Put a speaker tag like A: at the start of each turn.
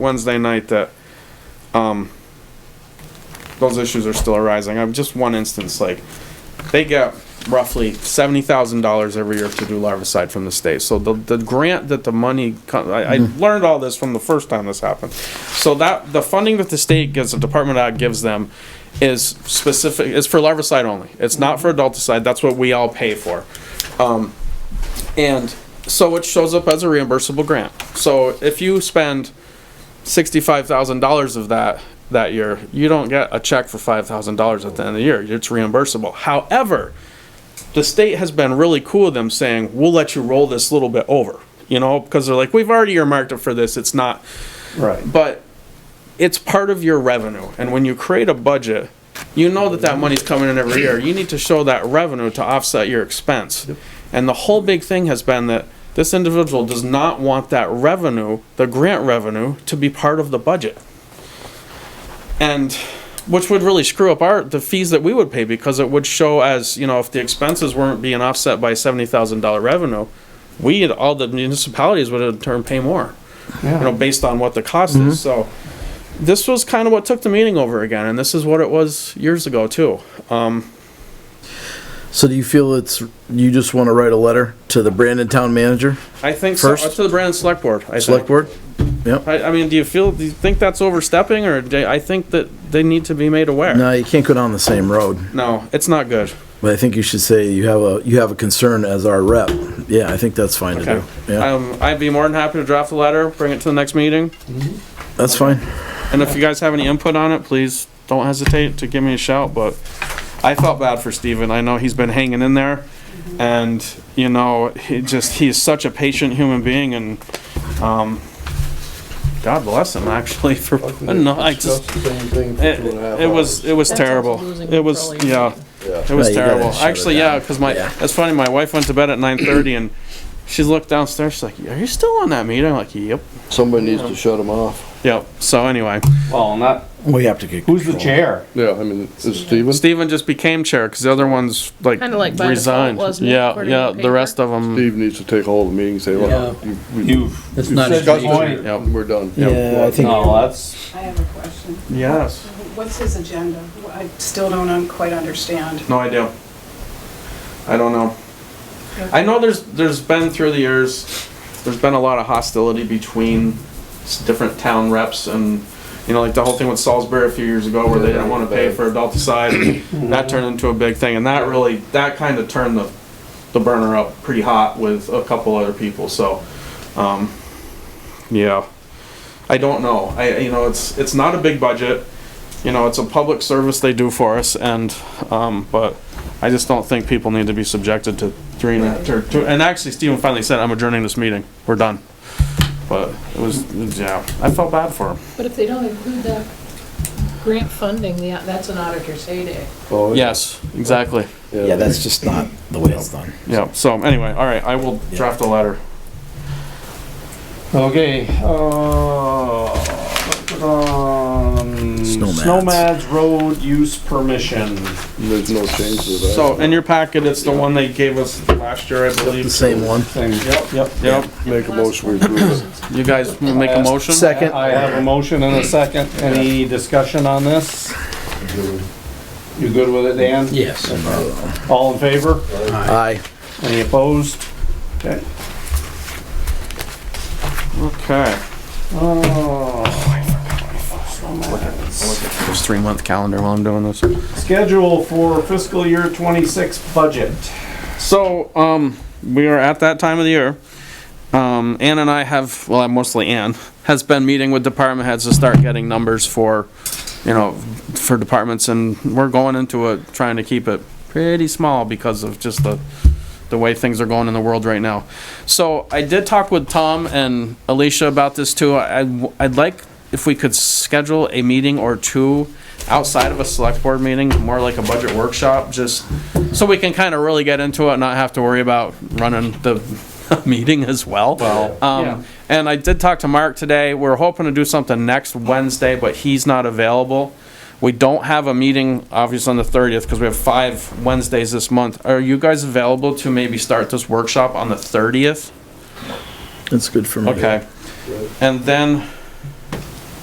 A: Wednesday night that, um, those issues are still arising. I've just one instance, like, they get roughly seventy thousand dollars every year to do larvicide from the state. So the, the grant that the money, co- I, I learned all this from the first time this happened. So that, the funding that the state gives, the Department of Ag gives them is specific, is for larvicide only. It's not for adulticide, that's what we all pay for. Um, and so it shows up as a reimbursable grant. So if you spend sixty-five thousand dollars of that that year, you don't get a check for five thousand dollars at the end of the year. It's reimbursable. However, the state has been really cool with them saying, "We'll let you roll this little bit over," you know, because they're like, "We've already earmarked it for this. It's not."
B: Right.
A: but it's part of your revenue. And when you create a budget, you know that that money's coming in every year. You need to show that revenue to offset your expense. And the whole big thing has been that this individual does not want that revenue, the grant revenue, to be part of the budget. And which would really screw up our the fees that we would pay because it would show as you know if the expenses weren't being offset by seventy thousand dollar revenue, we and all the municipalities would in turn pay more you know, based on what the cost
B: Mm-hmm.
A: is. So this was kind of what took the meeting over again, and this is what it was years ago too. Um,
B: So do you feel it's, you just want to write a letter to the Brandon Town Manager,
A: I think so,
B: First-
A: up to the Brandon Select Board. I
B: Select
A: think.
B: Board? Yep.
A: I, I mean, do you feel? Do you think that's overstepping, or do, I think that they need to be made aware?
B: No, you can't go down the same road,
A: No, it's not good.
B: but I think you should say you have a, you have a concern as our rep. Yeah, I think that's fine to
A: Okay.
B: do. Yeah,
A: Um, I'd be more than happy to draft the letter, bring it to the next meeting,
B: that's fine.
A: and if you guys have any input on it, please don't hesitate to give me a shout. But I felt bad for Steven. I know he's been hanging in there, and you know, he just he's such a patient human being, and um, God bless him actually for putting on. I just
C: the same thing for
A: it,
C: two and a half
A: it was it was
D: That's also
A: terrible.
D: losing
A: It was yeah,
D: control,
C: Yeah.
A: it was
B: Right, you gotta
A: terrible.
B: shut it
A: Actually, yeah, because my
B: Yeah.
A: that's funny. My wife went to bed at nine thirty and. She looked downstairs. She's like, "Are you still on that meeting?" I'm like, "Yep,
C: Somebody needs to shut him off.
A: yep." So anyway,
E: Well, not,
B: We have to get.
E: who's the
B: control.
E: chair?
C: Yeah, I mean, is Steven?
A: Steven just became chair because the other ones like,
D: Kinda like by default,
A: resigned.
D: wasn't it,
A: yeah,
D: according
A: yeah.
D: to the
A: The rest of them.
C: Steve needs to take all the meetings, say, well, you- we-
E: You've,
F: It's
C: you
F: not
E: said
F: his
C: discussed
E: good
F: meeting.
C: it,
E: point.
A: Yep.
C: and we're done.
B: Yeah, I think-
E: No, that's,
G: I have a question.
A: Yes.
G: What's his agenda? I still don't un- quite understand.
A: No idea. I don't know. I know there's there's been through the years, there's been a lot of hostility between s- different town reps and. You know, like the whole thing with Salisbury a few years ago where they didn't want to pay for adulticide, that turned into a big thing, and that really, that kind of turned the, the burner up pretty hot with a couple other people, so, um, yeah. I don't know. I, you know, it's, it's not a big budget. You know, it's a public service they do for us and, um, but I just don't think people need to be subjected to three and a half, or two, and actually Stephen finally said, I'm adjourning this meeting. We're done. But it was, yeah, I felt bad for him.
D: But if they don't include that grant funding, yeah, that's an auditor's heyday.
C: Oh,
A: Yes, exactly.
B: Yeah, that's just not the way it's done.
A: Yeah, so anyway, all right, I will draft a letter.
E: okay, uh, um,
B: Snowmads.
E: Snowmads Road Use Permission.
C: There's no change to that.
A: So in your packet, it's the one they gave us last year, I believe.
B: The same one.
E: Thing.
A: Yep, yep, yep.
C: Make a motion, we approve it.
A: You guys wanna make a motion?
B: Second.
E: I have a motion and a second. Any discussion on this? You good with it, Dan?
F: Yes.
E: All in favor?
B: Aye.
E: Any opposed? Okay.
A: Okay.
E: Oh,
A: This three-month calendar while I'm doing this.
E: schedule for fiscal year twenty-six budget.
A: So, um, we are at that time of the year. Um, Ann and I have, well, I'm mostly Ann, has been meeting with department heads to start getting numbers for, you know, for departments, and we're going into it, trying to keep it pretty small because of just the, the way things are going in the world right now. So I did talk with Tom and Alicia about this too. I, would like if we could schedule a meeting or two outside of a select board meeting, more like a budget workshop, just so we can kind of really get into it and not have to worry about running the meeting as well. Well,
E: yeah.
A: um, and I did talk to Mark today. We're hoping to do something next Wednesday, but he's not available. We don't have a meeting, obviously, on the 30th because we have five Wednesdays this month. Are you guys available to maybe start this workshop on the 30th?
B: That's good for me.
A: Okay. And then